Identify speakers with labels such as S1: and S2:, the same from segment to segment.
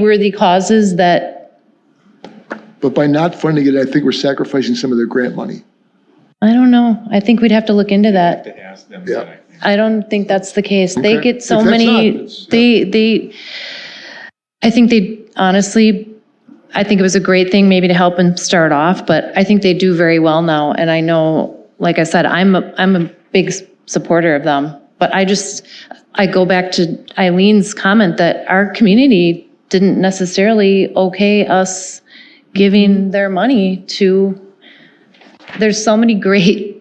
S1: worthy causes that,
S2: But by not funding it, I think we're sacrificing some of their grant money.
S1: I don't know, I think we'd have to look into that.
S3: to ask them
S2: Yeah.
S3: that, I think.
S1: I don't think that's the case. They
S2: Okay.
S1: get so
S2: If that's not,
S1: many,
S2: it's-
S1: they, they, I think they, honestly, I think it was a great thing maybe to help them start off, but I think they do very well now. And I know, like I said, I'm, a I'm a big s- supporter of them. But I just, I go back to Eileen's comment that our community didn't necessarily okay us giving their money to, there's so many great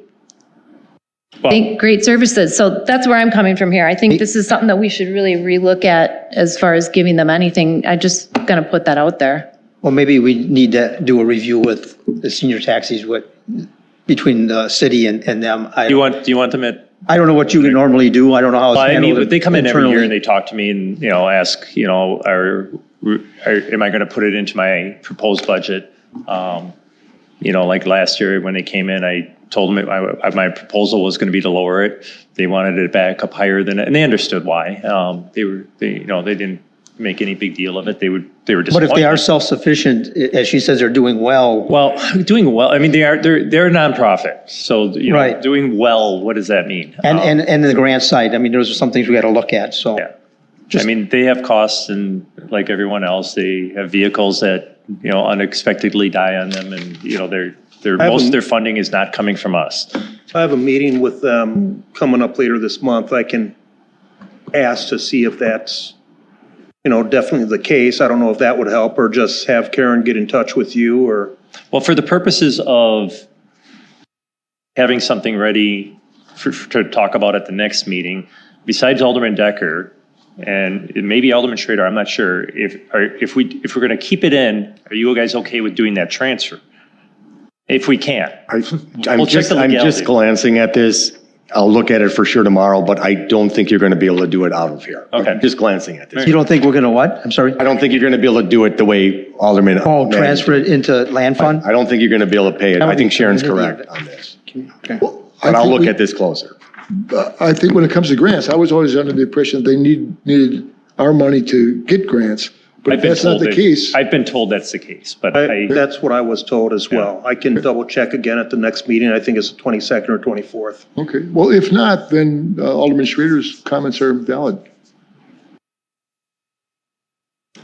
S1: Thank, great services. So that's where I'm coming from here. I think this is something that we should really relook at as far as giving them anything. I just gonna put that out there.
S4: Well, maybe we need to do a review with the senior taxis, what, between the city and, and them. I,
S5: Do you want, do you want them at,
S4: I don't know what you would normally do. I don't know how it's
S5: Well, I mean,
S4: handled
S5: but they come in every year and
S4: internally.
S5: they talk to me and, you know, ask, you know, are, are, am I going to put it into my proposed budget? Um, You know, like last year when they came in, I told them that my, my proposal was going to be to lower it. They wanted it back up higher than, and they understood why. Um, They were, they, you know, they didn't make any big deal of it. They would, they were
S4: But
S5: disappointed.
S4: if they are self-sufficient, i- as she says, they're doing well.
S5: Well, doing well, I mean, they are, they're, they're a nonprofit. So, you know,
S4: Right.
S5: doing well, what does that mean?
S4: And,
S5: Um,
S4: and, and the grant side, I mean, those are some things we got to look at, so.
S5: Yeah. I mean, they have costs and like everyone else, they have vehicles that, you know, unexpectedly die on them and, you know, their, their,
S6: have
S5: most
S6: a-
S5: of their funding is not coming from us.
S6: I have a meeting with them coming up later this month. I can ask to see if that's, you know, definitely the case. I don't know if that would help or just have Karen get in touch with you or,
S5: Well, for the purposes of having something ready for, for- to talk about at the next meeting, besides Alderman Decker and maybe Alderman Schrader, I'm not sure, if, are if we, if we're going to keep it in, are you guys okay with doing that transfer? If we can.
S7: I-
S5: We'll
S7: I'm
S5: check
S7: just,
S5: the
S7: I'm
S5: legality.
S7: just glancing at this. I'll look at it for sure tomorrow, but I don't think you're going to be able to do it out of here.
S5: Okay.
S7: I'm Just glancing at this.
S4: You don't think we're going to what? I'm sorry?
S7: I don't think you're going to be able to do it the way Alderman.
S4: Oh, transfer it into land fund?
S7: I don't think you're going to be able to pay it. I think Sharon's correct on this. But I'll look at this closer.
S2: But I think when it comes to grants, I was always under the impression they need, needed our money to get grants. But
S5: I've
S2: if
S5: been
S2: that's not
S5: told
S2: the
S5: that-
S2: case,
S5: I've been told that's the case, but
S6: I-
S5: I,
S6: that's what I was told as well. I can double check again at the next meeting. I think it's the 22nd or 24th.
S2: okay, well, if not, then uh, Alderman Schrader's comments are valid.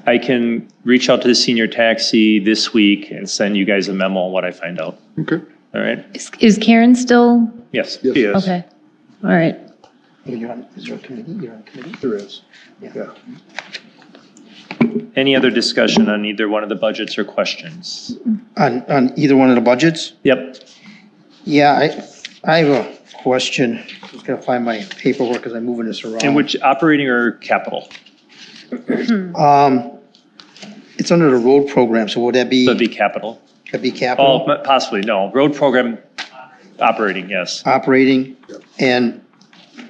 S5: I can reach out to the senior taxi this week and send you guys a memo on what I find out.
S2: Okay.
S5: All right?
S1: Is- Is Karen still?
S5: Yes.
S6: Yes.
S1: Okay, all right.
S4: You're on- Is there a committee? You're on a committee?
S6: There is. Yeah.
S5: Any other discussion on either one of the budgets or questions?
S4: On, on either one of the budgets?
S5: Yep.
S4: Yeah, I, I have a question. Just got to find my paperwork because I'm moving this around.
S5: And which, operating or capital?
S4: Um, it's under the road program, so would that be,
S5: That'd be capital.
S4: that be
S5: Oh,
S4: capital,
S5: m- possibly, no. Road program, operating, yes.
S4: operating? And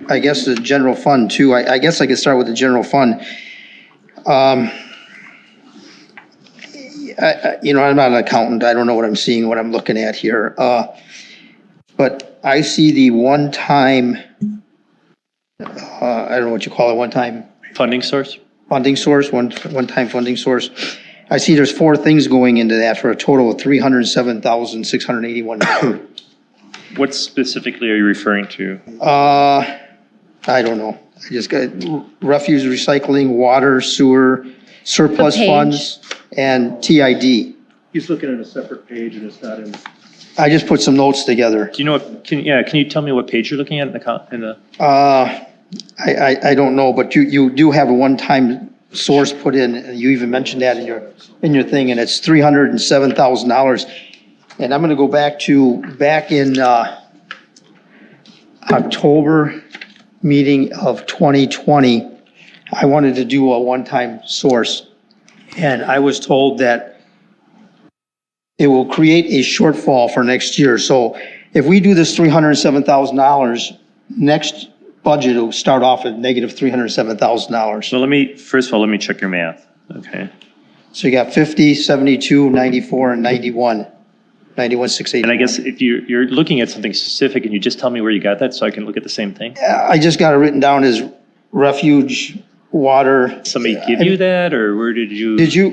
S4: I guess the general fund too, I, I guess I could start with the general fund. Um, I, I, you know, I'm not an accountant, I don't know what I'm seeing, what I'm looking at here, uh, but I see the one-time, uh, I don't know what you call it, one-time
S5: Funding source?
S4: funding source, one, one-time funding source. I see there's four things going into that for a total of three hundred seven thousand, six hundred eighty-one.
S5: What specifically are you referring to?
S4: Uh, I don't know. I just got refuse, recycling, water, sewer, surplus
S1: page.
S4: funds, and TID.
S6: He's looking at a separate page and it's not in.
S4: I just put some notes together.
S5: Do you know what, can, yeah, can you tell me what page you're looking at in the, co- in the?
S4: Uh, I, I, I don't know, but you, you do have a one-time source put in, and you even mentioned that in your, in your thing, and it's three hundred and seven thousand dollars. And I'm gonna go back to, back in, uh, October meeting of twenty twenty, I wanted to do a one-time source. And I was told that it will create a shortfall for next year. So if we do this three hundred and seven thousand dollars, next budget will start off at negative three hundred seven thousand dollars.
S5: So let me, first of all, let me check your math. Okay.
S4: So you got 50, 72, 94, and 91. 91,
S5: And I
S4: 680.
S5: guess if you, you're looking at something specific and you just tell me where you got that so I can look at the same thing?
S4: I just got it written down as refuge, water.
S5: Somebody give you that, or where did you?
S4: Did you,